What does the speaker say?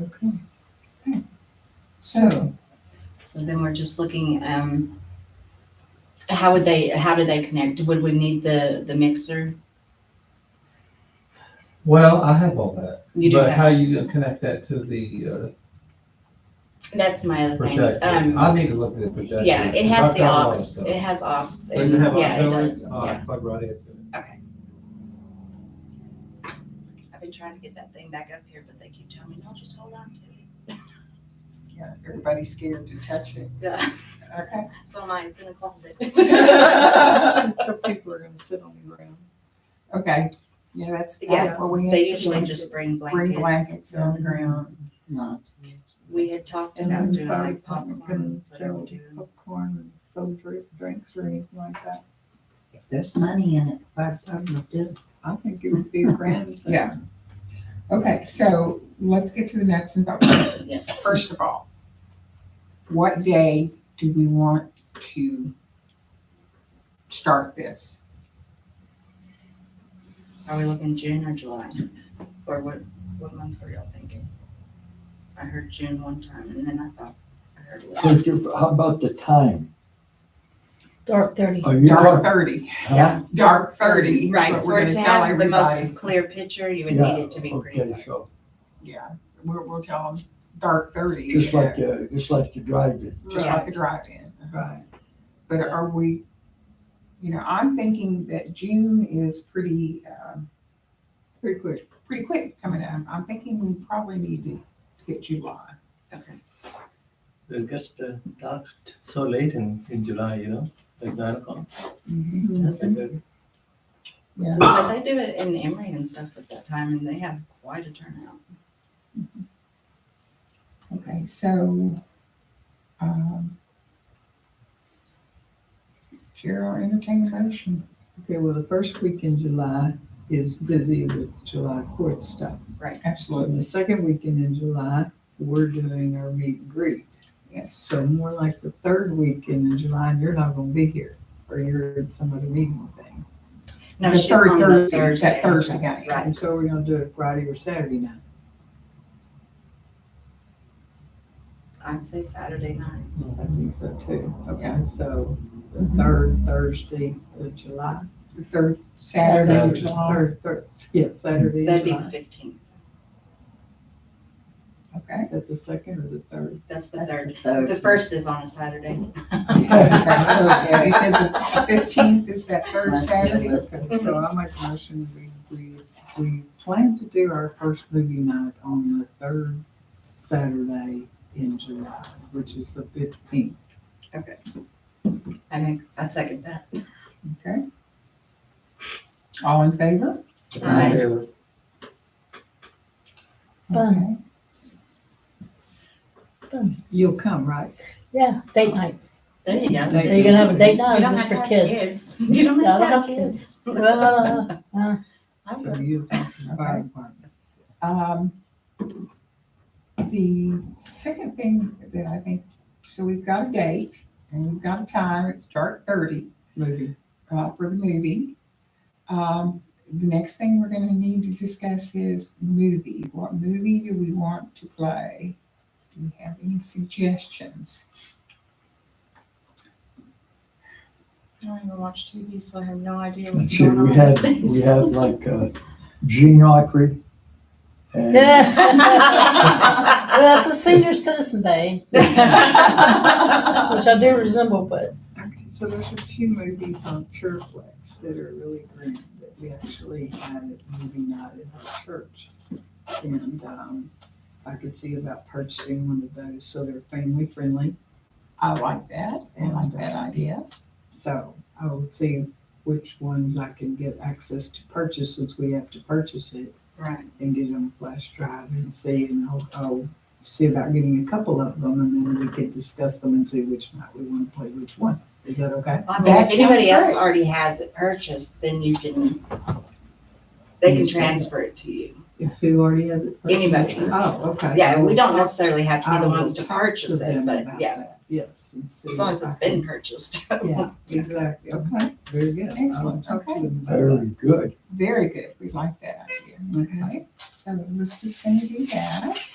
Okay. Okay. So, So then we're just looking, um, how would they, how do they connect? Would we need the, the mixer? Well, I have all that, You do but have, how you gonna connect that to the that's my uh, other thing. projector? Um, I need to look at the projector. yeah, it has I've the got a lot of aux, stuff. it has aux. Does it have and- Yeah, it auxiliary? does, Oh, I yeah. plug right in. I've been trying to get that thing back up here, but they keep telling me, no, just hold on to it. yeah, everybody's scared to touch it. Yeah, Okay. so mine, it's in a closet. So people are gonna sit on the ground. Okay, yeah, that's. Yeah, what we had They to usually do. just bring Bring blankets. blankets on the ground. Not. We had talked And about then doing fire like department popcorn, can whatever sell we do. popcorn and soda drink, drinks or anything like that. If there's money in it, fire department will do it. I think it would be a grand. thing. Yeah. Okay, so let's get to the nuts and bolts. Yes. First of all, what day do we want to start this? Are we looking June or July? Or what, what month were y'all thinking? I heard June one time and then I thought I heard. So you- how about the time? Dark thirty. Are you Dark talking, thirty, huh? dark thirty is Right, what for we're it gonna to tell have the everybody. most clear picture, you would Yeah, need it to be green. Okay, so, Yeah, we'll, we'll tell them dark thirty. you just know, like, the just like the drive-in. Just like a drive-in. uh-huh. Right. But are we, you know, I'm thinking that June is pretty, um, pretty quick, pretty quick coming up. I'm thinking we probably need to hit July. Okay. It gets uh, dark t- so late in, in July, you know, like nine o'clock. Mm-hmm. Doesn't- Yeah. But they do it in Emory and stuff at that time and they have quite a turnout. Okay, so, um, Chair, I'll entertain a motion. Okay, well, the first week in July is busy with July court stuff. Absolutely, And the second weekend in July, we're doing our meet and greet. yes. So more like the third weekend in July, and you're not gonna be here, or you're at some other meeting or thing. No, The she's third on the Thursday, that Thursday night. Right. And so we're gonna do it Friday or Saturday night. I'd say Saturday nights. I think so too. Okay, so the third Thursday of July. The third Saturday, Saturday. in July, Third, third, yeah, Saturday in That'd be the July. fifteenth. okay? Is that the second or the third? That's the third. Third. The first is on a Saturday. Okay, so yeah, you said the fifteenth is that third Saturday? Okay, So I make a motion, we, we, we plan to do our first movie night on the third Saturday in July, which is the fifteenth. I make, I second that. Okay. All in favor? Right. Okay. Fun. You'll come, right? Yeah, date night. There you go. Date So you're gonna have a date You night, or is don't this have to for have kids? kids. You don't Yeah, I have to don't have have kids. Well, uh, I So would. you'll come from the fire department. Um, the second thing that I think, so we've got a date and we've got a time, it's dark thirty, Movie. uh, for the movie. Um, the next thing we're gonna need to discuss is movie. What movie do we want to play? Do we have any suggestions? I don't even watch TV, so I have no idea Let's what's see, going on we these have, we days. have like, uh, Gene Autry. and- Well, that's a senior citizen day, which I do resemble, but Okay, so there's a few movies on Pureflix that are really great that we actually had at movie night in our church. And um, I could see about purchasing one of those, so they're family friendly. I like that, I like that idea. So I will see which ones I can get access to purchase since we have to purchase it Right. and get on flash drive and see and I'll, I'll see about getting a couple of them and then we can discuss them and see which night we want to play which one. Is that okay? I mean, That if anybody sounds else great. already has it purchased, then you can, they can Mm-hmm. transfer it to you. If who already has it? purchased? Anybody. Oh, okay. Yeah, we don't I necessarily have to be the will ones to talk purchase it, them but about yeah, that. Yes. and see as long if as I it's can- been purchased. Yeah, exactly. Okay, Very good. Excellent. I'll talk to Okay. them about that. Very good. very good, we like that idea. Okay, so Elizabeth's gonna do that.